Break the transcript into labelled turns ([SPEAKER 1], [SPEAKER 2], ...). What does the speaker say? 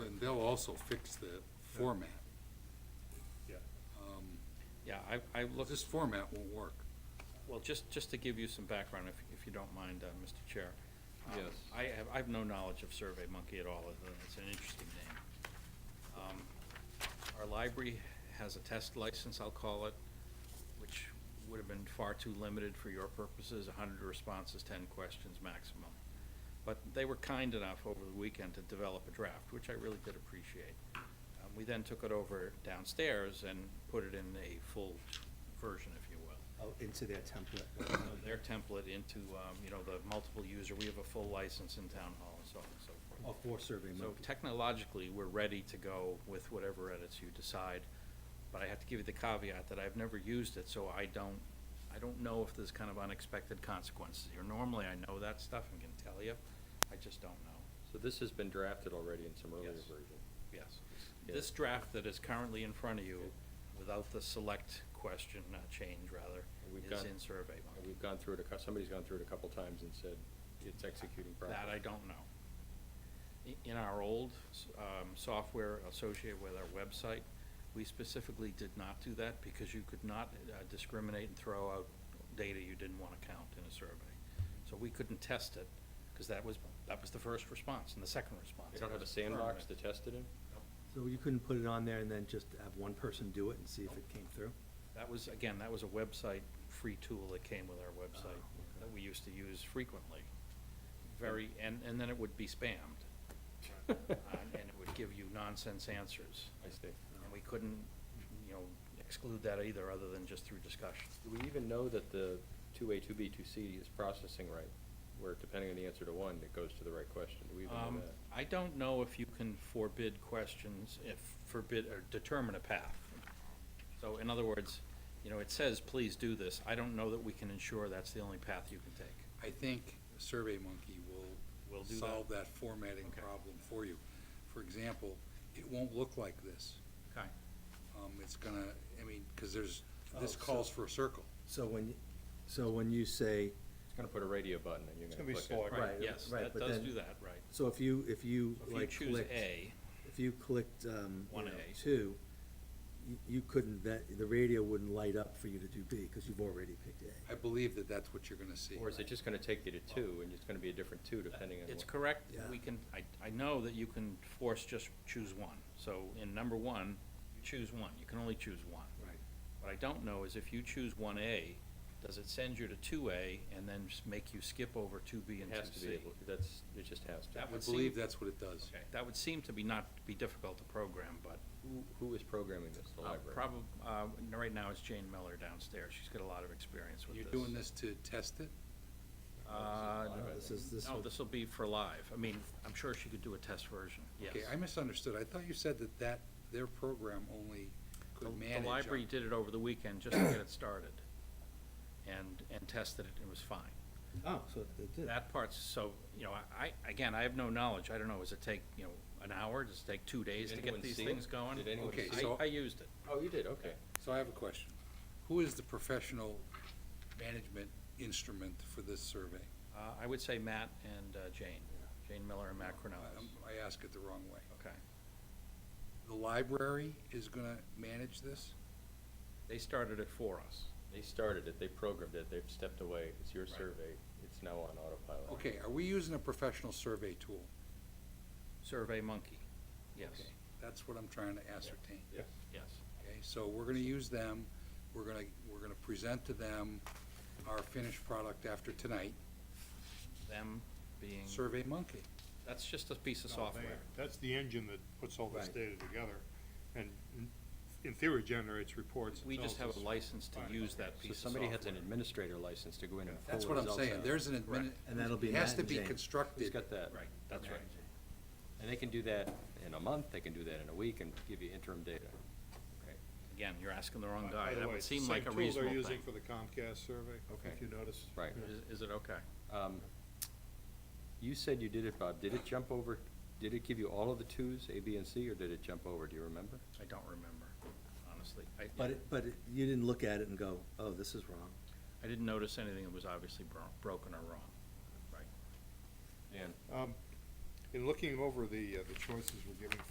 [SPEAKER 1] and they'll also fix the format.
[SPEAKER 2] Yeah.
[SPEAKER 1] Um,
[SPEAKER 3] Yeah, I, I looked,
[SPEAKER 1] This format won't work.
[SPEAKER 3] well, just, just to give you some background, if, if you don't mind, uh, Mr. Chair. Um,
[SPEAKER 4] Yes.
[SPEAKER 3] I have, I have no knowledge of Survey Monkey at all, other than it's an interesting name. Um, Our library has a test license, I'll call it, which would have been far too limited for your purposes, hundred responses, ten questions maximum. But they were kind enough over the weekend to develop a draft, which I really did appreciate. Um, We then took it over downstairs and put it in a full version, if you will
[SPEAKER 5] Oh, into their template.
[SPEAKER 3] uh, their template into, um, you know, the multiple user, we have a full license in town hall and so on and so forth.
[SPEAKER 5] Oh, for Survey
[SPEAKER 3] So
[SPEAKER 5] Monkey.
[SPEAKER 3] technologically, we're ready to go with whatever edits you decide, but I have to give you the caveat that I've never used it, so I don't, I don't know if there's kind of unexpected consequences here. Normally, I know that stuff and can tell you, I just don't know,
[SPEAKER 4] So this has been drafted already in some earlier
[SPEAKER 3] Yes.
[SPEAKER 4] version?
[SPEAKER 3] yes.
[SPEAKER 4] Yeah.
[SPEAKER 3] This draft that is currently in front of you, without the select question, uh, change rather,
[SPEAKER 4] And we've
[SPEAKER 3] is
[SPEAKER 4] gone-
[SPEAKER 3] in Survey
[SPEAKER 4] And
[SPEAKER 3] Monkey.
[SPEAKER 4] we've gone through it, a cou- somebody's gone through it a couple times and said it's executing properly.
[SPEAKER 3] That I don't know. I- In our old um, software associated with our website, we specifically did not do that because you could not uh, discriminate and throw out data you didn't want to count in a survey. So we couldn't test it because that was, that was the first response and the second response.
[SPEAKER 4] They don't have
[SPEAKER 3] That
[SPEAKER 4] a
[SPEAKER 3] was
[SPEAKER 4] sandbox to
[SPEAKER 3] permanent.
[SPEAKER 4] test it in?
[SPEAKER 5] So you couldn't put it on there and then just have one person do it and see if it came through?
[SPEAKER 3] That was, again, that was a website, free tool that came with our
[SPEAKER 5] Oh,
[SPEAKER 3] website
[SPEAKER 5] okay.
[SPEAKER 3] that we used to use frequently. Very, and, and then it would be spammed. uh, And it would give you nonsense answers.
[SPEAKER 4] I see.
[SPEAKER 3] And we couldn't, you know, exclude that either, other than just through discussion.
[SPEAKER 4] Do we even know that the two A, two B, two C is processing right? Where depending on the answer to one, it goes to the right question? Do we even know
[SPEAKER 3] Um,
[SPEAKER 4] that?
[SPEAKER 3] I don't know if you can forbid questions, if forbid, or determine a path. So in other words, you know, it says, please do this. I don't know that we can ensure that's the only path you can take.
[SPEAKER 1] I think Survey Monkey will.
[SPEAKER 3] Will do that?
[SPEAKER 1] Solve that formatting
[SPEAKER 3] Okay.
[SPEAKER 1] problem for you. For example, it won't look like this.
[SPEAKER 3] Okay.
[SPEAKER 1] Um, it's gonna, I mean, cause there's, this
[SPEAKER 5] Oh, so-
[SPEAKER 1] calls for a circle.
[SPEAKER 5] So when, so when you say,
[SPEAKER 4] It's gonna put a radio button and you're
[SPEAKER 2] It's
[SPEAKER 4] gonna
[SPEAKER 2] gonna be
[SPEAKER 4] click it.
[SPEAKER 2] slower.
[SPEAKER 5] Right,
[SPEAKER 3] Yes,
[SPEAKER 5] right,
[SPEAKER 3] that
[SPEAKER 5] but
[SPEAKER 3] does
[SPEAKER 5] then-
[SPEAKER 3] do that, right.
[SPEAKER 5] so if you, if you
[SPEAKER 3] So
[SPEAKER 5] like
[SPEAKER 3] If you choose
[SPEAKER 5] clicked,
[SPEAKER 3] A,
[SPEAKER 5] if you clicked, um, you
[SPEAKER 3] One
[SPEAKER 5] know,
[SPEAKER 3] A.
[SPEAKER 5] two, you, you couldn't, that, the radio wouldn't light up for you to do B, because you've already picked A.
[SPEAKER 1] I believe that that's what you're gonna see.
[SPEAKER 4] Or is it just gonna take you to two and it's gonna be a different two depending on what?
[SPEAKER 3] it's correct,
[SPEAKER 5] Yeah.
[SPEAKER 3] we can, I, I know that you can force just choose one. So in number one, you choose one, you can only choose one.
[SPEAKER 1] Right.
[SPEAKER 3] What I don't know is if you choose one A, does it send you to two A and then just make you skip over two B
[SPEAKER 4] It
[SPEAKER 3] and
[SPEAKER 4] has to
[SPEAKER 3] two
[SPEAKER 4] be
[SPEAKER 3] C?
[SPEAKER 4] able, that's, it just has to.
[SPEAKER 1] I
[SPEAKER 3] That would
[SPEAKER 1] believe
[SPEAKER 3] seem-
[SPEAKER 1] that's what it does.
[SPEAKER 3] Okay, That would seem to be not, be difficult to program, but
[SPEAKER 4] Who, who is programming this? The library? Oh,
[SPEAKER 3] probably, uh, right now it's Jane Miller downstairs, she's got a lot of experience with
[SPEAKER 1] You're
[SPEAKER 3] this.
[SPEAKER 1] doing this to test it?
[SPEAKER 3] Uh,
[SPEAKER 4] Live, I
[SPEAKER 5] This
[SPEAKER 4] think.
[SPEAKER 5] is, this,
[SPEAKER 3] no,
[SPEAKER 5] would-
[SPEAKER 3] this'll be for live, I mean, I'm sure she could do a test version, yes.
[SPEAKER 1] Okay, I misunderstood. I thought you said that that, their program only
[SPEAKER 3] The-
[SPEAKER 1] could manage. uh,
[SPEAKER 3] The library
[SPEAKER 1] up-
[SPEAKER 3] did it over the weekend just to get it started and, and tested it, and it was fine.
[SPEAKER 5] oh, so it did.
[SPEAKER 3] That part's, so, you know, I, again, I have no knowledge, I don't know, does it take, you know, an hour, does it take two days to
[SPEAKER 4] Did
[SPEAKER 3] get
[SPEAKER 4] anyone
[SPEAKER 3] these
[SPEAKER 4] see it?
[SPEAKER 3] things going?
[SPEAKER 4] Did anyone
[SPEAKER 1] Okay,
[SPEAKER 4] see
[SPEAKER 1] so-
[SPEAKER 4] it?
[SPEAKER 3] I, I used it,
[SPEAKER 4] Oh, you did, okay.
[SPEAKER 1] So I have a question. Who is the professional management instrument for this survey?
[SPEAKER 3] uh, I would say Matt and uh, Jane, Jane Miller and Matt
[SPEAKER 4] Oh,
[SPEAKER 3] Cornelis,
[SPEAKER 1] I'm- I ask it the wrong way.
[SPEAKER 3] okay.
[SPEAKER 1] The library is gonna manage this?
[SPEAKER 3] They started it for us,
[SPEAKER 4] They started it, they programmed it, they've stepped away, it's your
[SPEAKER 3] Right.
[SPEAKER 4] survey, it's now on autopilot.
[SPEAKER 1] Okay, are we using a professional survey tool?
[SPEAKER 3] Survey Monkey, yes,
[SPEAKER 1] Okay, That's what I'm trying to ascertain.
[SPEAKER 4] Yeah.
[SPEAKER 3] yes,
[SPEAKER 1] Okay, so we're gonna use them, we're gonna, we're gonna present to them our finished product after tonight,
[SPEAKER 3] them being,
[SPEAKER 4] Mm-hmm.
[SPEAKER 1] Survey Monkey.
[SPEAKER 3] that's just a piece
[SPEAKER 1] Oh,
[SPEAKER 3] of software.
[SPEAKER 2] Oh, That's the engine that puts all this
[SPEAKER 5] Right.
[SPEAKER 2] data together and in- in theory generates reports. and
[SPEAKER 3] We just
[SPEAKER 2] tells
[SPEAKER 3] have a
[SPEAKER 2] us-
[SPEAKER 3] license to
[SPEAKER 2] Fine,
[SPEAKER 3] use
[SPEAKER 2] okay.
[SPEAKER 3] that
[SPEAKER 4] So
[SPEAKER 3] piece of software.
[SPEAKER 4] somebody has an administrator license to go in and pull
[SPEAKER 1] That's
[SPEAKER 4] results
[SPEAKER 1] what I'm saying,
[SPEAKER 4] out.
[SPEAKER 1] there's an admin.
[SPEAKER 3] Correct.
[SPEAKER 5] And that'll be
[SPEAKER 1] it Has
[SPEAKER 5] Matt
[SPEAKER 1] to
[SPEAKER 5] and
[SPEAKER 1] be
[SPEAKER 5] Jane.
[SPEAKER 4] Who's
[SPEAKER 1] constructed.
[SPEAKER 4] got that?
[SPEAKER 3] Right, that's
[SPEAKER 1] Okay.
[SPEAKER 3] right.
[SPEAKER 4] And they can do that in a month, they can do that in a week and give you interim data.
[SPEAKER 3] Again, you're asking the wrong
[SPEAKER 2] By- by
[SPEAKER 3] guy.
[SPEAKER 2] the
[SPEAKER 3] That
[SPEAKER 2] way,
[SPEAKER 3] would
[SPEAKER 2] it's the
[SPEAKER 3] seem like a
[SPEAKER 2] same
[SPEAKER 3] reasonable
[SPEAKER 2] Tool they're
[SPEAKER 3] thing.
[SPEAKER 2] using for the Comcast survey,
[SPEAKER 4] Okay.
[SPEAKER 2] if you notice.
[SPEAKER 4] Right.
[SPEAKER 3] Is- Is it okay?
[SPEAKER 4] Um, You said you did it, Bob, did it jump over, did it give you all of the twos, A, B, and C, or did it jump over, do you remember?
[SPEAKER 3] I don't remember, honestly. I,
[SPEAKER 5] But, it- but it- you didn't look at it and go, oh, this is wrong.
[SPEAKER 3] I didn't notice anything that was obviously bro- broken or wrong. Right.
[SPEAKER 4] Dan?
[SPEAKER 2] Um, In looking over the, uh, the choices we're giving